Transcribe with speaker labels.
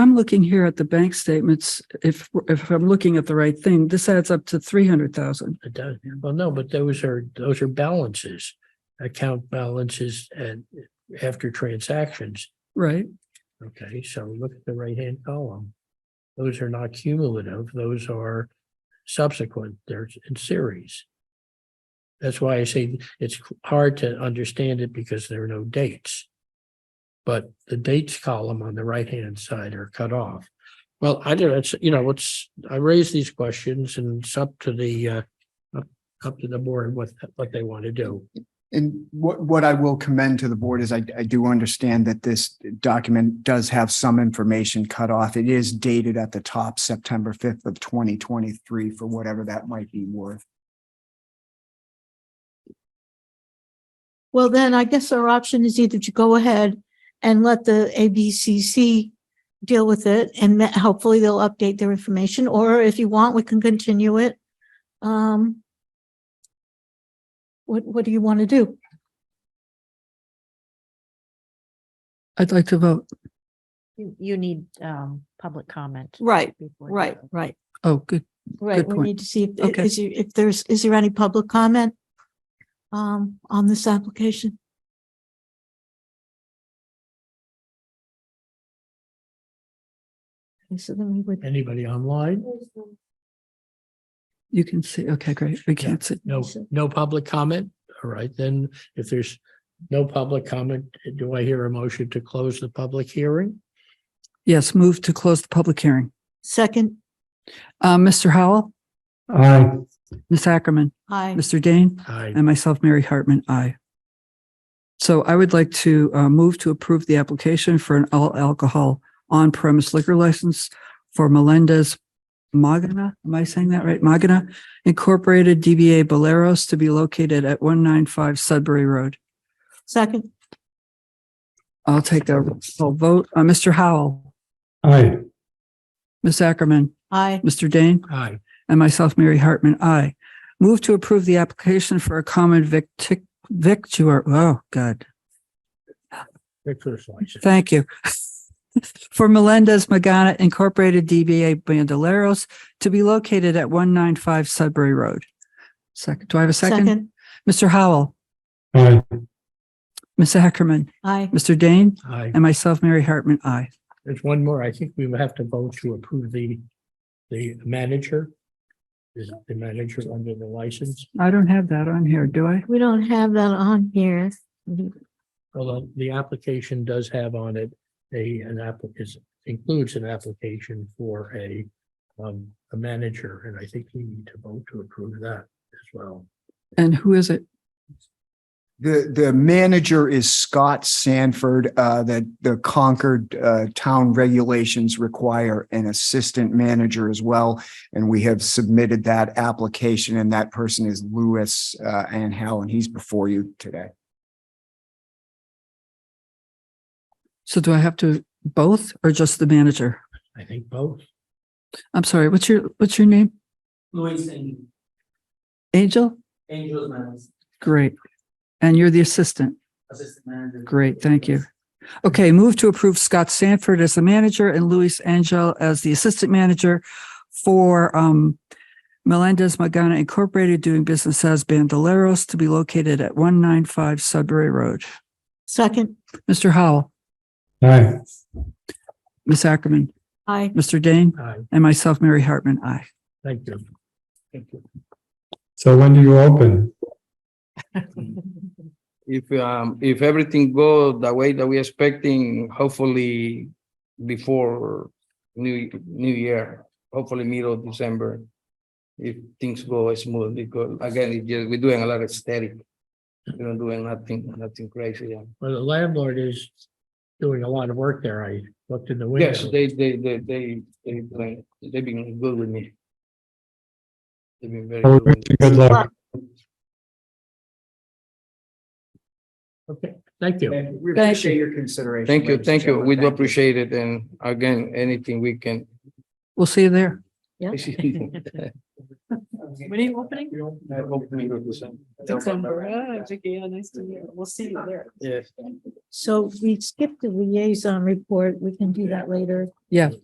Speaker 1: looking here at the bank statements, if, if I'm looking at the right thing, this adds up to three hundred thousand.
Speaker 2: It does. Well, no, but those are, those are balances, account balances and after transactions.
Speaker 1: Right,
Speaker 2: Okay, so look at the right-hand column. Those are not cumulative, those are subsequent, they're in series. That's why I say it's hard to understand it because there are no dates. But the dates column on the right-hand side are cut off. Well, I don't, it's, you know, it's, I raise these questions and it's up to the uh, up, up to the board what, what they want to do.
Speaker 3: And what, what I will commend to the board is I, I do understand that this document does have some information cut off. It is dated at the top, September fifth of twenty twenty-three, for whatever that might be worth.
Speaker 4: Well, then I guess our option is either to go ahead and let the ABCC deal with it and that- hopefully they'll update their information, or if you want, we can continue it. Um, what, what do you want to do?
Speaker 1: I'd like to vote.
Speaker 5: You, you need, um, public comment.
Speaker 4: Right,
Speaker 5: before you
Speaker 4: right,
Speaker 5: vote.
Speaker 4: right,
Speaker 1: Oh, good.
Speaker 4: right. We
Speaker 1: point.
Speaker 4: need to see if,
Speaker 1: Okay.
Speaker 4: is, there- if there's, is there any public comment um, on this application? Okay, So then we would.
Speaker 2: Anybody online?
Speaker 1: You can see, okay, great. We can't see.
Speaker 2: No,
Speaker 4: So-
Speaker 2: no public comment? All right, then if there's no public comment, do I hear a motion to close the public hearing?
Speaker 1: Yes, move to close the public hearing.
Speaker 4: Second,
Speaker 1: Uh, Mr. Howell,
Speaker 2: Aye.
Speaker 1: Ms. Ackerman,
Speaker 4: aye.
Speaker 1: Mr. Dane,
Speaker 2: Aye.
Speaker 1: and myself, Mary Hartman, aye. So I would like to uh, move to approve the application for an all alcohol on premise liquor license for Melendez Magana, am I saying that right? Magana Incorporated DBA Boleros to be located at one nine five Sudbury Road.
Speaker 4: Second,
Speaker 1: I'll take a roll vote. Uh, Mr. Howell,
Speaker 2: Aye.
Speaker 1: Ms. Ackerman,
Speaker 4: aye.
Speaker 1: Mr. Dane,
Speaker 2: Aye.
Speaker 1: and myself, Mary Hartman, aye. Move to approve the application for a common victic, victuar, oh, God,
Speaker 2: Victor's license.
Speaker 1: Thank you. For Melendez Magana Incorporated DBA Bandoleros to be located at 195 Sudbury Road. Second, do I have a second?
Speaker 4: Second,
Speaker 1: Mr. Howell,
Speaker 2: Aye.
Speaker 1: Ms. Ackerman,
Speaker 4: aye.
Speaker 1: Mr. Dane,
Speaker 2: Aye.
Speaker 1: and myself, Mary Hartman, aye.
Speaker 2: There's one more. I think we would have to vote to approve the, the manager. Is the manager under the license?
Speaker 1: I don't have that on here, do I?
Speaker 4: We don't have that on here.
Speaker 2: Although the application does have on it a, an applicant includes an application for a, um, a manager, and I think we need to vote to approve that as well.
Speaker 1: And who is it?
Speaker 3: The, the manager is Scott Sanford, uh, that the Concord, uh, town regulations require an assistant manager as well. And we have submitted that application and that person is Louis, uh, Anhel, and he's before you today.
Speaker 1: So do I have to both or just the manager?
Speaker 2: I think both.
Speaker 1: I'm sorry, what's your, what's your name?
Speaker 6: Luis and
Speaker 1: Angel?
Speaker 6: Angel's my
Speaker 1: Great. And you're the assistant?
Speaker 6: assistant manager.
Speaker 1: Great, thank you. Okay, move to approve Scott Sanford as the manager and Luis Angel as the assistant manager for um Melendez Magana Incorporated doing business as Bandoleros to be located at one nine five Sudbury Road.
Speaker 4: Second,
Speaker 1: Mr. Howell,
Speaker 2: Aye.
Speaker 1: Ms. Ackerman,
Speaker 4: aye.
Speaker 1: Mr. Dane,
Speaker 2: Aye,
Speaker 1: and myself, Mary Hartman, aye.
Speaker 2: thank you. Thank you.
Speaker 7: So when do you open?
Speaker 6: If, um, if everything go the way that we expecting, hopefully before new, new year, hopefully middle of December. If things go smooth, because again, it just, we're doing a lot of static. We're not doing nothing, nothing crazy. yeah.
Speaker 2: Well, the landlord is doing a lot of work there. I looked in the
Speaker 6: Yes,
Speaker 2: window.
Speaker 6: they, they, they, they, they, doing- they've been good with me. They've been very
Speaker 7: Well,
Speaker 6: good.
Speaker 7: we Oh, wish you
Speaker 6: with me.
Speaker 7: Good luck.
Speaker 2: Okay, thank you.
Speaker 3: We
Speaker 1: Thank appreciate
Speaker 3: your consideration.
Speaker 6: Thank you, thank you. We do appreciate it. And again, anything we can.
Speaker 1: We'll see you there.
Speaker 5: Yeah.
Speaker 6: When
Speaker 8: are you opening?
Speaker 6: December.
Speaker 8: Ah, Vicky, yeah, nice to meet you. We'll see you there.
Speaker 6: Yes.
Speaker 4: So we skipped the liaison report. We can do that later.
Speaker 1: Yeah,